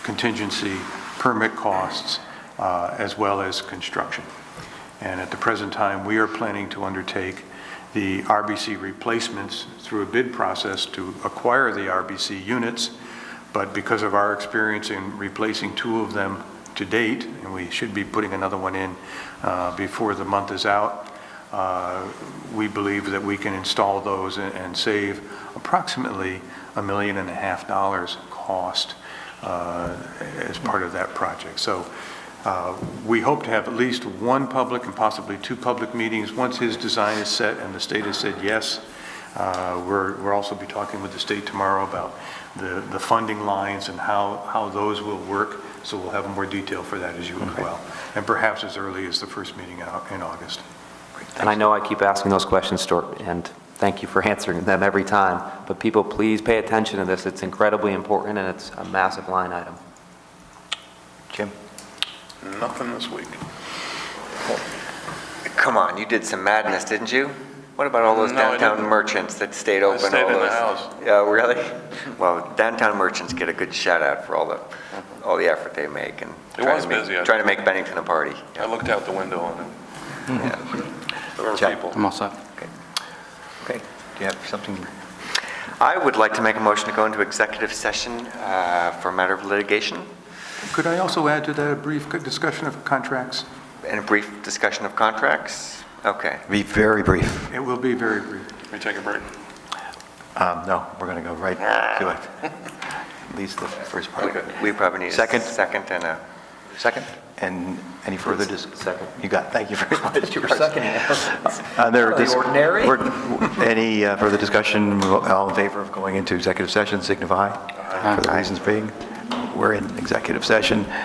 contingency, permit costs, uh, as well as construction. And at the present time, we are planning to undertake the RBC replacements through a bid process to acquire the RBC units, but because of our experience in replacing two of them to date, and we should be putting another one in uh, before the month is out, uh, we believe that we can install those and- and save approximately a million and a half dollars cost uh, as part of that project. So uh, we hope to have at least one public and possibly two public meetings. Once his design is set and the state has said yes, uh, we're, we'll also be talking with the state tomorrow about the, the funding lines and how, how those will work. So we'll have more detail for that as you as well. And perhaps as early as the first meeting in Au- in August. And I know I keep asking those questions, Stuart, and thank you for answering them every time, but people, please pay attention to this. It's incredibly important, and it's a massive line item. Jim? Nothing this week. Come on, you did some madness, didn't you? What about all those No, I downtown didn't. merchants that stayed open? stayed all in the those- house. Yeah, really? Well, downtown merchants get a good shout out for all the, all the effort they make and. It trying was to make- busy, I- Trying to make Bennington a party. I looked out the window on it. Yeah. There were Check. people. I'm all set. Okay, do you have something? I would like to make a motion to go into executive session uh, for a matter of litigation Could I also add to that a brief discussion of contracts? and a brief discussion of contracts. Okay. Be very brief. It will be very brief. Can we take a break? Um, No, we're going to go right to it. At least the first part. We probably need a Second. second and a, Second? And any further dis... Second. You got, thank you very much. Uh, You were seconding Uh, second. ordinary. Any uh, further discussion? All in favor of going into executive session, signify. For the reasons being, we're in executive session.